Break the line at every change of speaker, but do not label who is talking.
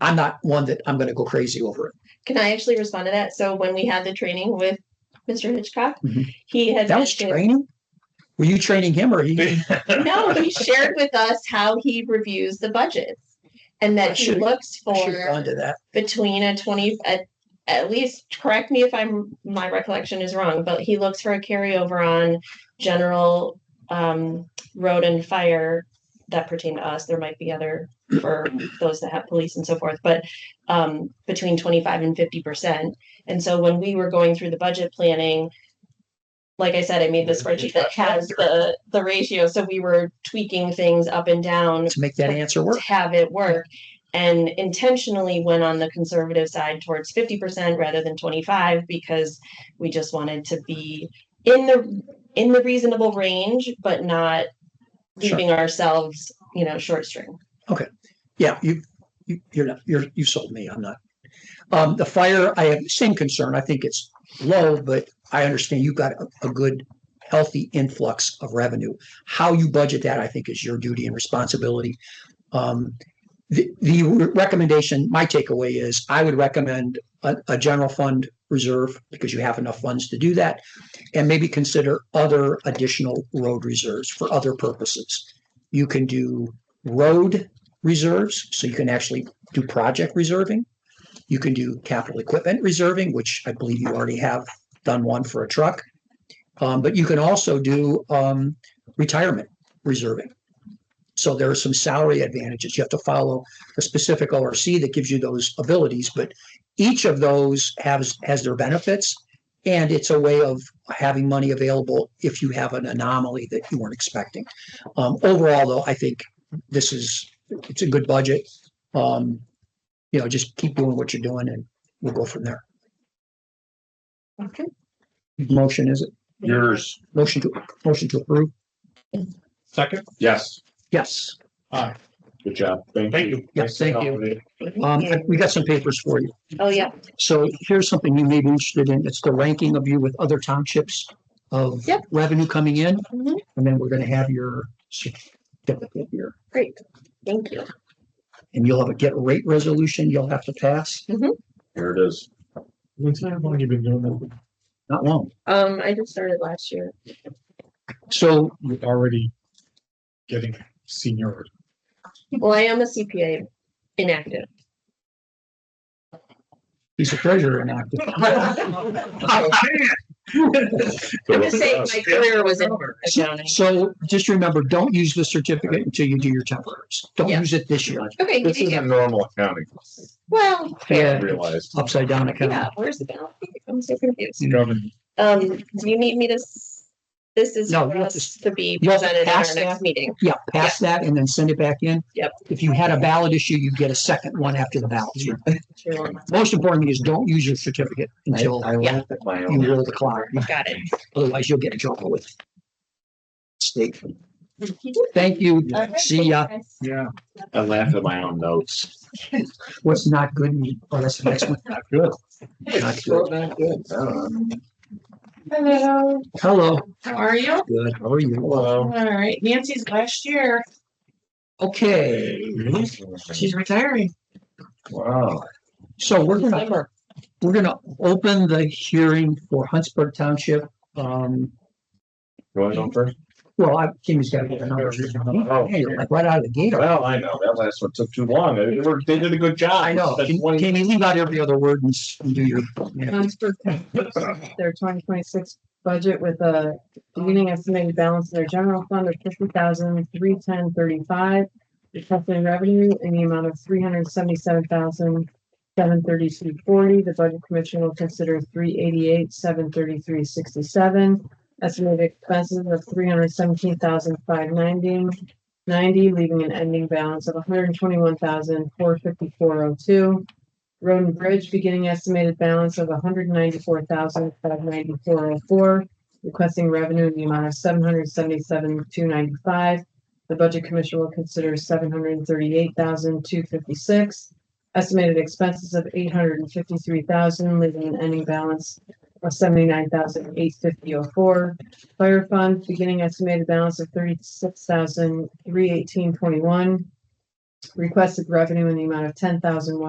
I'm not one that I'm going to go crazy over it.
Can I actually respond to that? So when we had the training with Mr. Hitchcock,
Mhm.
he had
That was
mentioned-
training. Were you training him or he?
no, he shared with us how he reviews the budgets and
I
that he
should've-
looks
I should've
for
gone to that.
between a twenty, at, at least, correct me if I'm, my recollection is wrong, but he looks for a carryover on general, um, road and fire that pertain to us. There might be other for those that have police and so forth, but, um, between twenty-five and fifty percent. And so when we were going through the budget planning, like I said, I made the spreadsheet that has the, the ratio, so we were tweaking things up and down
to make that answer work.
to have it work and intentionally went on the conservative side towards 50% rather than 25 because we just wanted to be in the in the reasonable range but not
Sure.
leaving ourselves you know short string
Yeah, you, you, you're not, you're, you sold me. I'm not. Um, the fire, I have the same concern. I think it's low, but I understand you've got a, a good, healthy influx of revenue. How you budget that, I think, is your duty and responsibility. Um, the, the recommendation, my takeaway is I would recommend a, a general fund reserve because you have enough funds to do that. And maybe consider other additional road reserves for other purposes. You can do road reserves, so you can actually do project reserving. You can do capital equipment reserving, which I believe you already have done one for a truck. Um, but you can also do, um, retirement reserving. So there are some salary advantages. You have to follow a specific ORC that gives you those abilities, but each of those has, has their benefits. And it's a way of having money available if you have an anomaly that you weren't expecting. Um, overall though, I think this is it's a good budget. Um, you know, just keep doing what you're doing and we'll go from there.
okay
Motion is it?
Yours.
Motion to, motion to approve?
Second?
Yes.
Yes.
Good job.
Thank you.
Yes, thank you. Um, we got some papers for you.
oh yeah
So here's something you may be interested in. It's the ranking of you with other townships of
Yep.
revenue coming in.
Mhm.
And then we're gonna have your certificate here.
great thank you
And you'll have a get rate resolution you'll have to pass.
Here it is.
When's that, how long you been doing that?
Not long.
um i just started last year
So
You're already getting senior.
well i am a cpa inactive
he's a treasurer and active.
i'm just saying my career was in
So-
accounting
So just remember, don't use the certificate until you do your temporaries. Don't
Yeah.
use it this year.
okay
This
yeah, yeah.
isn't normal accounting,
Mm-hmm. well
I
Yeah,
realized.
upside down
yeah
account.
where's the balance i'm so confused
Government.
Um, do you need me to, s- this is
No,
for
you have
us to be
you have to
presented at
pass
our
that.
next meeting.
Yeah, pass that and then send it back in.
Yep.
If you had a valid issue, you get a second one after the ballot.
Sure.
Most importantly is don't use your certificate until
Yeah.
at my
you roll the clock.
Got it.
Otherwise you'll get in trouble with state.
You did.
Thank you.
All right,
See ya.
thanks, guys.
Yeah.
I laugh at my own notes.
What's not good? me- Oh, that's the next one.
Not good.
Not good.
not good.
Hello,
Hello.
how are you?
Good. How are you?
All
Hello.
right, Nancy's last year,
Okay,
she's retiring.
Wow.
so we're gonna We're gonna open the hearing for Huntsburg Township. Um,
You want to go first? Oh,
well, I, Jimmy's got to get the numbers. Hey, you're like right out of the gate.
Well, I know, that last one took too long. They were, they did a good job.
I know.
That's
Can
one-
can you leave out every other word and s- and do your?
um,
Huntsburg their twenty twenty-six budget with a beginning estimated balance in their general fund of fifty thousand, three ten thirty-five. Requesting revenue in the amount of three hundred seventy-seven thousand, seven thirty-two forty. The budget commission will consider three eighty-eight, seven thirty-three sixty-seven. Estimated expenses of three hundred seventeen thousand, five ninety, ninety, leaving an ending balance of one hundred twenty-one thousand, four fifty-four oh two. Road and Bridge, beginning estimated balance of 194,594.04, requesting revenue in the amount of seven hundred seventy-seven, two ninety-five. The Budget Commission will consider seven hundred thirty-eight thousand, two fifty-six. Estimated expenses of eight hundred and fifty-three thousand, leaving an ending balance of seventy-nine thousand, eight fifty oh four. Fire Fund, beginning estimated balance of thirty-six thousand, three eighteen twenty-one. Requested revenue in the amount of ten thousand,